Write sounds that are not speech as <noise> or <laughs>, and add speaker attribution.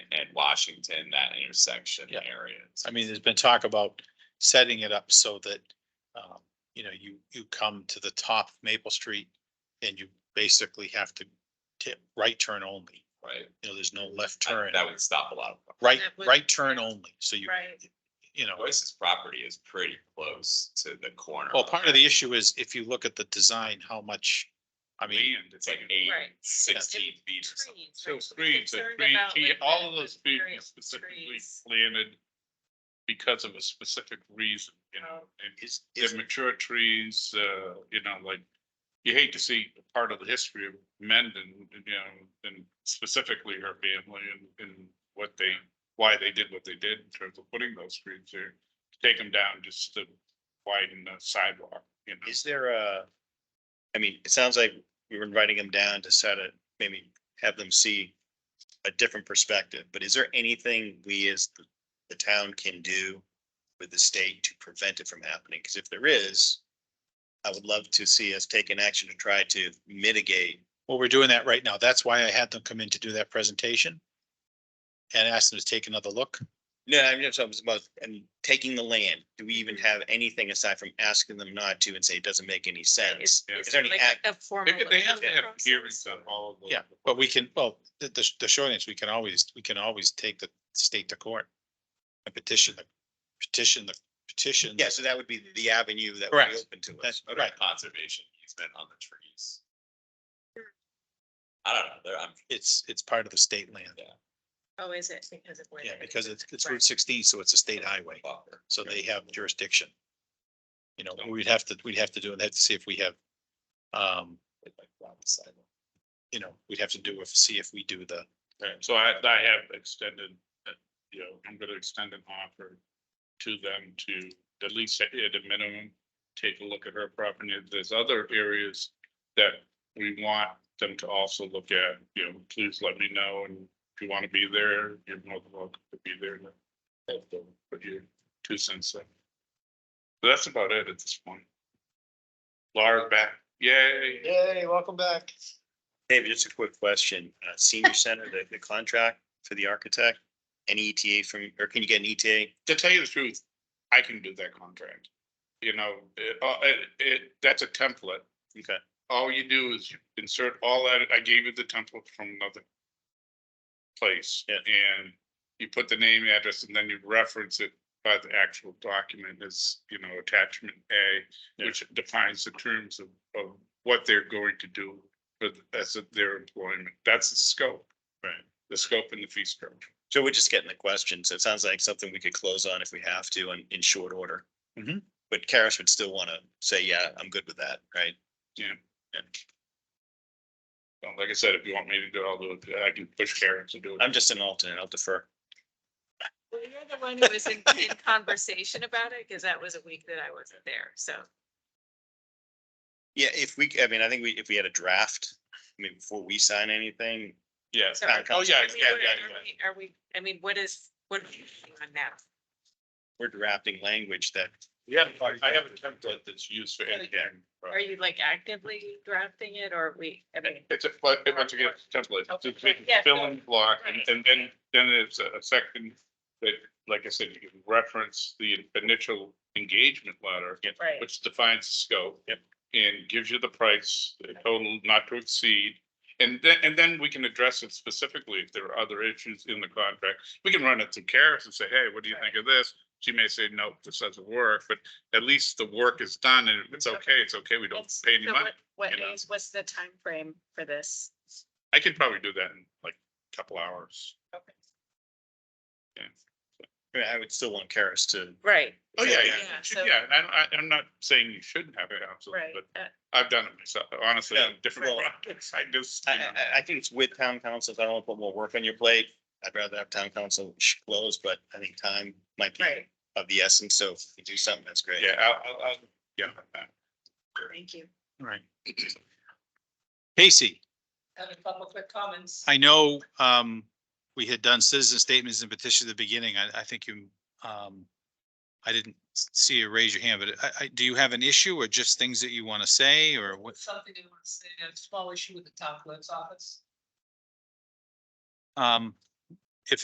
Speaker 1: Washington, that intersection
Speaker 2: Yeah.
Speaker 1: area.
Speaker 2: I mean, there's been talk about setting it up so that, um, you know, you, you come to the top of Maple Street and you basically have to tip right turn only.
Speaker 1: Right,
Speaker 2: You know, there's no left turn,
Speaker 1: That- that would stop a lot of.
Speaker 2: right,
Speaker 3: That would-
Speaker 2: right turn only. So you,
Speaker 3: Right,
Speaker 2: you know,
Speaker 1: Oasis property is pretty close to the corner.
Speaker 2: well, part of the issue is if you look at the design, how much, I mean,
Speaker 1: Land, it's like eight,
Speaker 3: Right.
Speaker 1: sixteen feet or something.
Speaker 3: trees.
Speaker 4: So
Speaker 3: right, so we're
Speaker 4: screens, the
Speaker 3: concerned
Speaker 4: green
Speaker 3: about,
Speaker 4: tea,
Speaker 3: like,
Speaker 4: all of those trees
Speaker 3: material
Speaker 4: specifically
Speaker 3: trees.
Speaker 4: planted because of a specific reason, you know,
Speaker 3: Oh.
Speaker 4: and
Speaker 2: is, is,
Speaker 4: they're mature trees, uh, you know, like. You hate to see part of the history of Mendon, you know, and specifically her family and, and what they, why they did what they did in terms of putting those trees there. Take them down just to widen the sidewalk, you know.
Speaker 2: is there a? I mean, it sounds like we were inviting them down to set it, maybe have them see a different perspective, but is there anything we as the, the town can do with the state to prevent it from happening? Because if there is, I would love to see us take an action to try to mitigate. Well, we're doing that right now. That's why I had them come in to do that presentation and asked them to take another look.
Speaker 5: No, I'm just talking about, and taking the land, do we even have anything aside from asking them not to and say it doesn't make any sense?
Speaker 4: Yeah.
Speaker 3: Is
Speaker 5: there any
Speaker 3: like
Speaker 5: act-
Speaker 3: a formal
Speaker 4: They, they have to have
Speaker 3: approval
Speaker 4: hearings on
Speaker 3: process?
Speaker 4: all of those.
Speaker 2: Yeah, but we can, well, the, the, the short answer, we can always, we can always take the state to court. And petition, the petition, the petition.
Speaker 5: Yeah, so that would be the avenue that would
Speaker 2: Correct.
Speaker 5: be open to us.
Speaker 2: That's right.
Speaker 1: Conservation easement on the trees. I don't know, there, I'm,
Speaker 2: It's, it's part of the state land.
Speaker 3: Oh, is it because of where?
Speaker 2: Yeah,
Speaker 3: they-
Speaker 2: because it's, it's
Speaker 3: Right.
Speaker 2: Route sixteen, so it's a state highway.
Speaker 1: buffer.
Speaker 2: So they have jurisdiction. You know, we'd have to, we'd have to do, and have to see if we have, um, you know, we'd have to do, if see if we do the,
Speaker 4: Right, so I, I have extended, uh, you know, I'm gonna extend an offer to them to at least at a minimum, take a look at her property. If There's other areas that we want them to also look at, you know, please let me know and if you want to be there, you're more than welcome to be there. and help them Put your two cents in. But That's about it at this point. Laura's back, yay.
Speaker 2: Yay, welcome back.
Speaker 5: David, just a quick question. Uh, senior center, the, the contract for the architect, any ETA from, or can you get an E ETA?
Speaker 4: to tell you the truth, I can do that contract. You know, it, uh, it, it, that's a template.
Speaker 5: Okay.
Speaker 4: All you do is you insert all that, I gave you the template from another place.
Speaker 5: Yeah.
Speaker 4: And you put the name, address, and then you reference it by the actual document as, you know, attachment A,
Speaker 5: Yeah.
Speaker 4: which defines the terms of, of what they're going to do for, the- as of their employment. That's the scope. Right. The scope and the fee structure.
Speaker 5: So we're just getting the question. So it sounds like something we could close on if we have to in, in short order.
Speaker 4: Mm-hmm.
Speaker 2: Mhm.
Speaker 5: But Karis would still want to say, yeah, I'm good with that, right?
Speaker 4: Well, Like I said, if you want me to do it, I'll do it. I can push Karen to do it.
Speaker 5: I'm just an alternate. I'll defer.
Speaker 3: Well, you're the one who was in, in conversation about it, because that was a week that I wasn't there, so.
Speaker 5: Yeah, if we, I mean, I think we, if we had a draft, I mean, before we sign anything,
Speaker 4: Yes.
Speaker 3: so are-
Speaker 4: Oh, yeah,
Speaker 3: I mean,
Speaker 4: yeah,
Speaker 3: where-
Speaker 4: yeah,
Speaker 3: are
Speaker 4: yeah.
Speaker 3: we- Are we, I mean, what is, what are we working on now?
Speaker 5: we're drafting language that,
Speaker 4: Yeah, I have a template that's used for anything.
Speaker 3: Are you like actively drafting it, or are we, I mean,
Speaker 4: It's a, but it- once again, it's a template,
Speaker 3: Okay.
Speaker 4: It's a
Speaker 3: Yeah.
Speaker 4: fill in block, and and then, then it's a a section that, like I said, you can reference the initial engagement letter,
Speaker 3: right?
Speaker 4: which defines the scope. And gives you the price, the total not to exceed, and then, and then we can address it specifically if there are other issues in the contract. We can run it through Karis and say, hey, what do you think of this? She may say, no, this doesn't work, but at least the work is done and if it's okay, it's okay, we don't
Speaker 3: It's-
Speaker 4: pay any
Speaker 3: so
Speaker 4: money.
Speaker 3: what- What
Speaker 4: you know?
Speaker 3: is, what's the time frame for this?
Speaker 4: I could probably do that in like a couple hours.
Speaker 3: Okay.
Speaker 5: I mean, I would still want Karis to,
Speaker 3: Right.
Speaker 4: Oh, yeah, yeah,
Speaker 3: Yeah,
Speaker 4: Should-
Speaker 3: so-
Speaker 4: yeah, and I, I, I'm not saying you shouldn't have it, absolutely,
Speaker 3: Right,
Speaker 4: but
Speaker 3: uh,
Speaker 4: I've done it myself, honestly,
Speaker 5: Yeah,
Speaker 4: different
Speaker 5: well-
Speaker 4: <laughs> projects, I just.
Speaker 5: I,
Speaker 4: you know.
Speaker 5: I, I think it's with town council. I don't want to put more work on your plate. I'd rather have town council close, but I think time might be
Speaker 3: right,
Speaker 5: of the essence. So if you do something, that's great.
Speaker 4: Yeah, I'll, I'll, I'll, yeah.
Speaker 3: thank you.
Speaker 2: Right. Casey.
Speaker 3: I have a couple quick comments.
Speaker 2: I know, um, we had done citizen statements and petitions at the beginning. I, I think you, um, I didn't see you raise your hand, but I, I, do you have an issue or just things that you want to say or what?
Speaker 6: something they want to say, a small issue with the town clerk's office.
Speaker 2: Um,